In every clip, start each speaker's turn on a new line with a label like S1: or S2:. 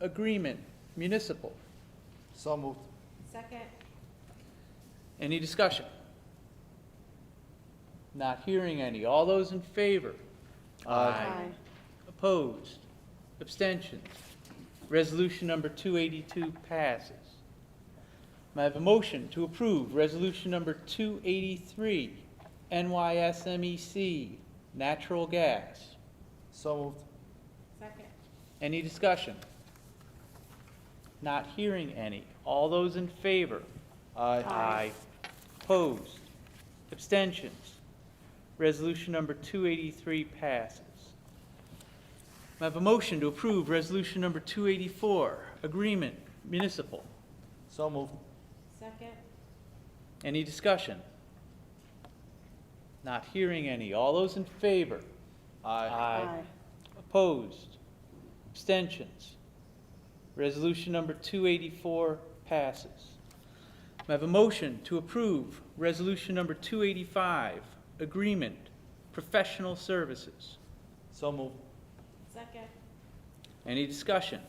S1: agreement, municipal.
S2: So moved.
S3: Second,
S1: Any discussion? Not hearing any. All those in favor?
S3: Aye.
S1: Opposed? Abstentions? Resolution number 282 passes. May I have a motion to approve Resolution number 283, NYSMEC, E natural gas?
S2: So moved.
S3: second,
S1: Any discussion? Not hearing any. All those in favor?
S2: Aye.
S3: Aye.
S1: Opposed? Abstentions? Resolution number 283 passes. May I have a motion to approve Resolution number 284, Agreement Municipal?
S2: So moved.
S3: second,
S1: Any discussion? Not hearing any. All those in favor?
S3: Aye.
S1: Opposed? Abstentions? Resolution number 284 passes. May I have a motion to approve Resolution number 285, Agreement, Professional Services?
S2: So moved.
S3: second,
S1: Any discussion?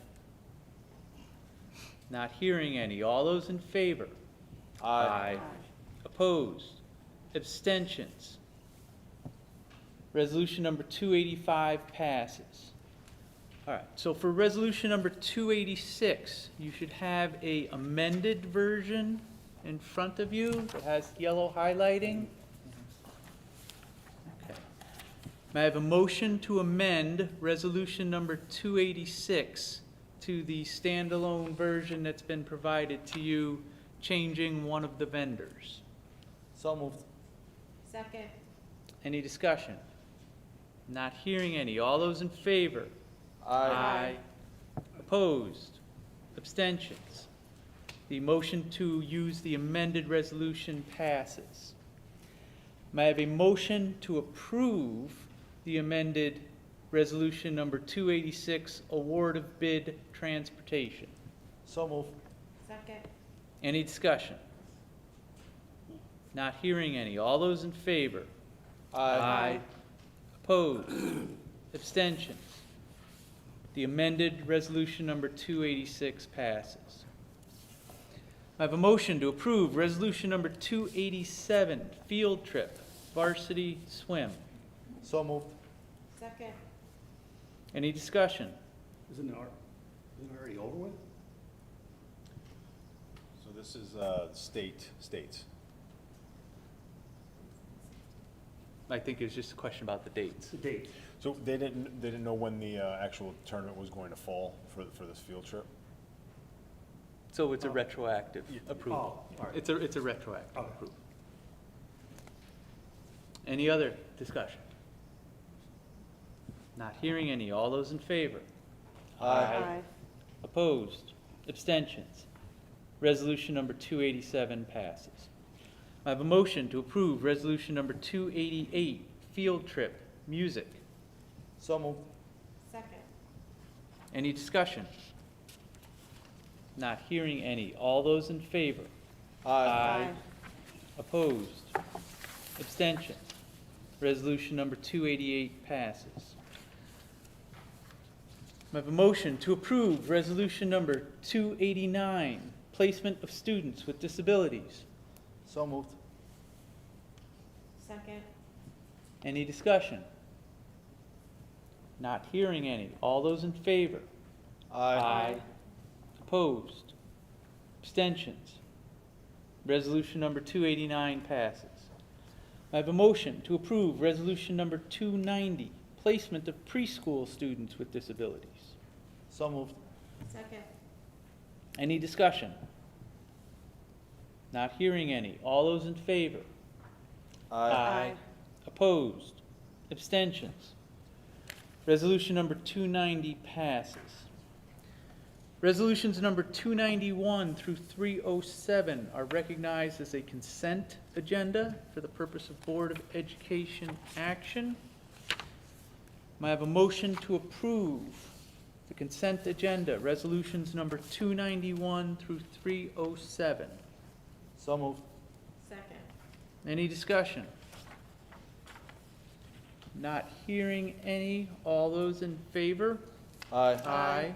S1: Not hearing any. All those in favor?
S3: aye,
S1: Opposed? Abstentions? Resolution number 285 passes. All right, so for resolution number 286, you should have a amended version in front of you that has yellow highlighting. Okay. May I have a motion to amend resolution number 286 to the standalone version that's been provided to you, changing one of the vendors?
S2: So moved.
S3: second,
S1: Any discussion? Not hearing any. All those in favor?
S3: Aye.
S1: Opposed? Abstentions? The motion to use the amended resolution passes. May I have a motion to approve the amended resolution number 286, award of bid transportation?
S2: So moved.
S3: second,
S1: Any discussion? Not hearing any. All those in favor? Opposed? Abstentions? The amended resolution number 286 passes. I have a motion to approve resolution number 287, field trip, varsity swim.
S2: So moved.
S3: second,
S1: Any discussion?
S4: Isn't it, al- isn't it already over with?
S5: So this is uh, state, states.
S1: I think it's just a question about the dates.
S4: It's the date.
S5: So they didn't, they didn't know when the uh, actual tournament was going to fall for, for this field trip?
S1: So it's a retroactive
S4: Oh,
S1: approval.
S4: all right.
S1: It's a, it's a retroactive
S4: Okay.
S1: approval. Any other discussion? Not hearing any. All those in favor?
S3: aye,
S1: Opposed? Abstentions? Resolution number 287 passes. I have a motion to approve resolution number 288, field trip, music.
S2: So moved.
S3: second,
S1: Any discussion? Not hearing any. All those in favor?
S3: aye,
S1: Opposed? Abstentions? Resolution number 288 passes. May I have a motion to approve resolution number 289, placement of students with disabilities?
S2: So moved.
S3: second,
S1: Any discussion? Not hearing any. All those in favor? Opposed? Abstentions? Resolution number 289 passes. I have a motion to approve resolution number 290, placement of preschool students with disabilities.
S2: So moved.
S3: second,
S1: Any discussion? Not hearing any. All those in favor?
S3: Aye.
S1: Opposed? Abstentions? Resolution number 290 passes. Resolutions number 291 through 307 are recognized as a consent agenda for the purpose of Board of Education action. May I have a motion to approve the consent agenda, resolutions number 291 through 307?
S2: So moved.
S3: second,
S1: Any discussion? Not hearing any. All those in favor?
S2: Aye.
S3: Aye.